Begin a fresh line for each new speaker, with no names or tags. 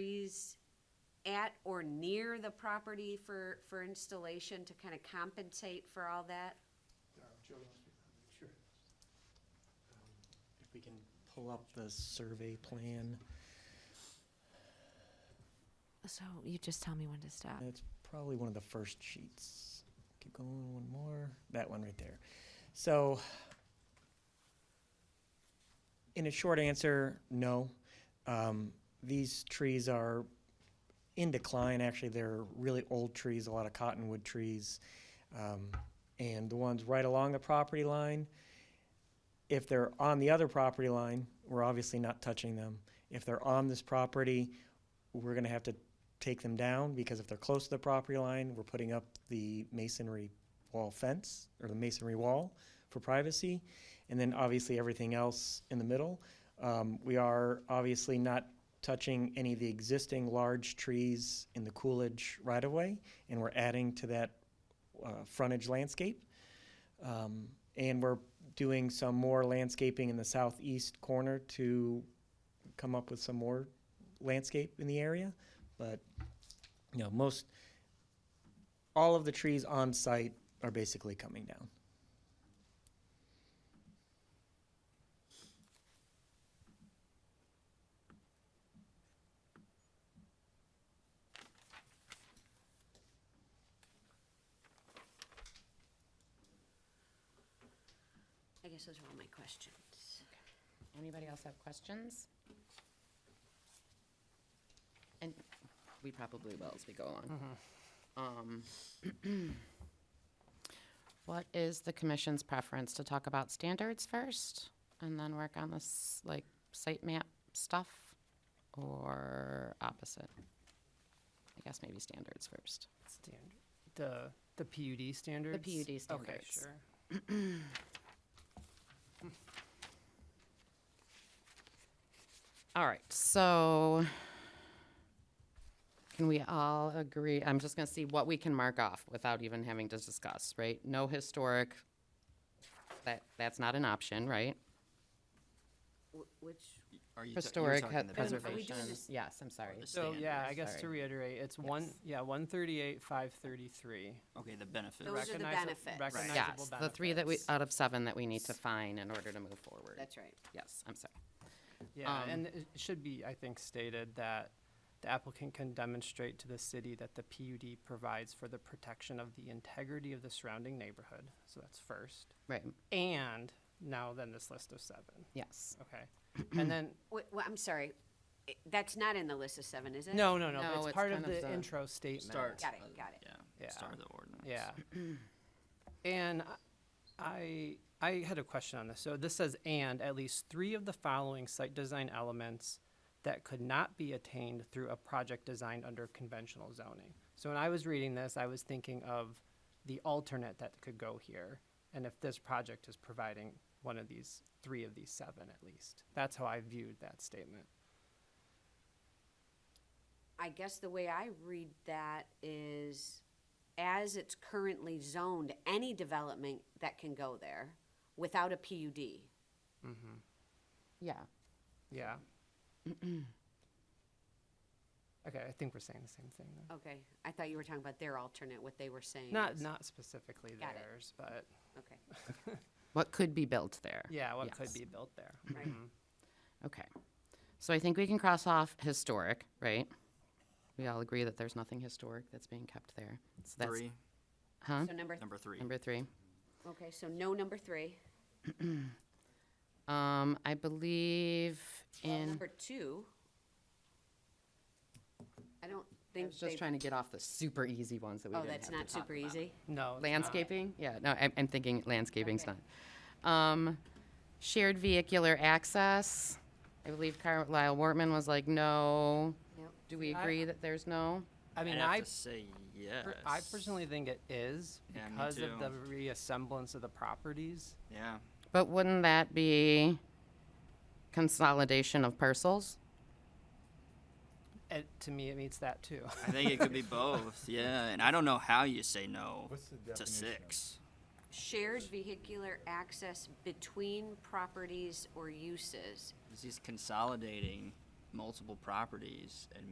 trees at or near the property for, for installation to kind of compensate for all that?
Uh, Joe wants to make sure.
If we can pull up the survey plan,
So you just tell me when to stop.
that's probably one of the first sheets. Keep going, one more, that one right there. So, in a short answer, no. Um, these trees are in decline, actually, they're really old trees, a lot of cottonwood trees. Um, and the ones right along the property line, if they're on the other property line, we're obviously not touching them. If they're on this property, we're gonna have to take them down, because if they're close to the property line, we're putting up the masonry wall fence, or the masonry wall for privacy, and then obviously everything else in the middle. Um, we are obviously not touching any of the existing large trees in the Coolidge right-of-way, and we're adding to that, uh, frontage landscape. Um, and we're doing some more landscaping in the southeast corner to come up with some more landscape in the area. But, you know, most, all of the trees on site are basically coming down.
I guess those are all my questions.
Anybody else have questions? And we probably will as we go along. Um, What is the commission's preference to talk about standards first and then work on this, like, site map stuff? Or opposite? I guess maybe standards first.
Standard, the, the PUD standards?
PUD
Okay,
standards.
sure.
All right, so can we all agree, I'm just gonna see what we can mark off without even having to discuss, right? No historic, that, that's not an option, right?
Wh- Which,
Are you ta- you're
Historic
talking
ha-
the
Madam- are we doing
preservation,
this-
yes, I'm sorry.
benefit-
So, yeah, I
standards.
guess to
Sorry.
reiterate, it's one, yeah, one thirty-eight, five thirty-three.
Okay, the benefits.
Those are the benefits. Right.
Yes, the three that we, out of seven that we need to find in order to move forward.
that's right.
Yes, I'm sorry.
Yeah,
um,
and it should be, I think, stated that the applicant can demonstrate to the city that the PUD provides for the protection of the integrity of the surrounding neighborhood, so that's first.
Right,
And now then this list of seven,
yes.
okay? And then,
Wait, well, I'm sorry, I- that's not in the list of seven, is it?
no, no, no,
No,
but
it's
it's part of
kind of
the
the
intro statement.
Start.
Got it, got it.
Yeah,
Yeah.
start of the ordinance.
Yeah. And I, I had a question on this. So this says, and at least three of the following site design elements that could not be attained through a project designed under conventional zoning. So when I was reading this, I was thinking of the alternate that could go here. And if this project is providing one of these, three of these seven at least. That's how I viewed that statement.
I guess the way I read that is, as it's currently zoned, any development that can go there without a PUD.
Yeah,
Yeah. Okay, I think we're saying the same thing then.
Okay, I thought you were talking about their alternate, what they were saying.
Not,
is-
not specifically
Got it.
theirs, but
Okay,
what could be built there?
yeah, what could
Yes.
be built there. Mm-hmm.
right,
Okay. So I think we can cross off historic, right? We all agree that there's nothing historic that's being kept there. So that's,
Three,
Huh?
so number, th-
number three.
Number three.
okay, so no number three.
Um, I believe
Well,
in,
Number two. I don't
I
think
was
they,
just trying to get off the super easy ones that we
oh,
didn't have
that's
to
not
talk
super
about.
easy.
No. it's not.
Landscaping? Yeah, no, I'm, I'm thinking landscaping's not. Um, shared vehicular access. I believe Carlisle Wortman was like, no.
Yep.
Do we
I-
agree that there's no?
I mean,
I'd have
I,
to say yes.
per- I personally think it is
Yeah, me
because of the
too.
reassemblance of the properties.
Yeah,
But wouldn't that be consolidation of parcels?
It, to me, it meets that too.
I think it could be both. Yeah, and I don't know how you say no
What's the
to
definition of-
six.
Shared vehicular access between properties or uses.
'Cause He's consolidating multiple properties and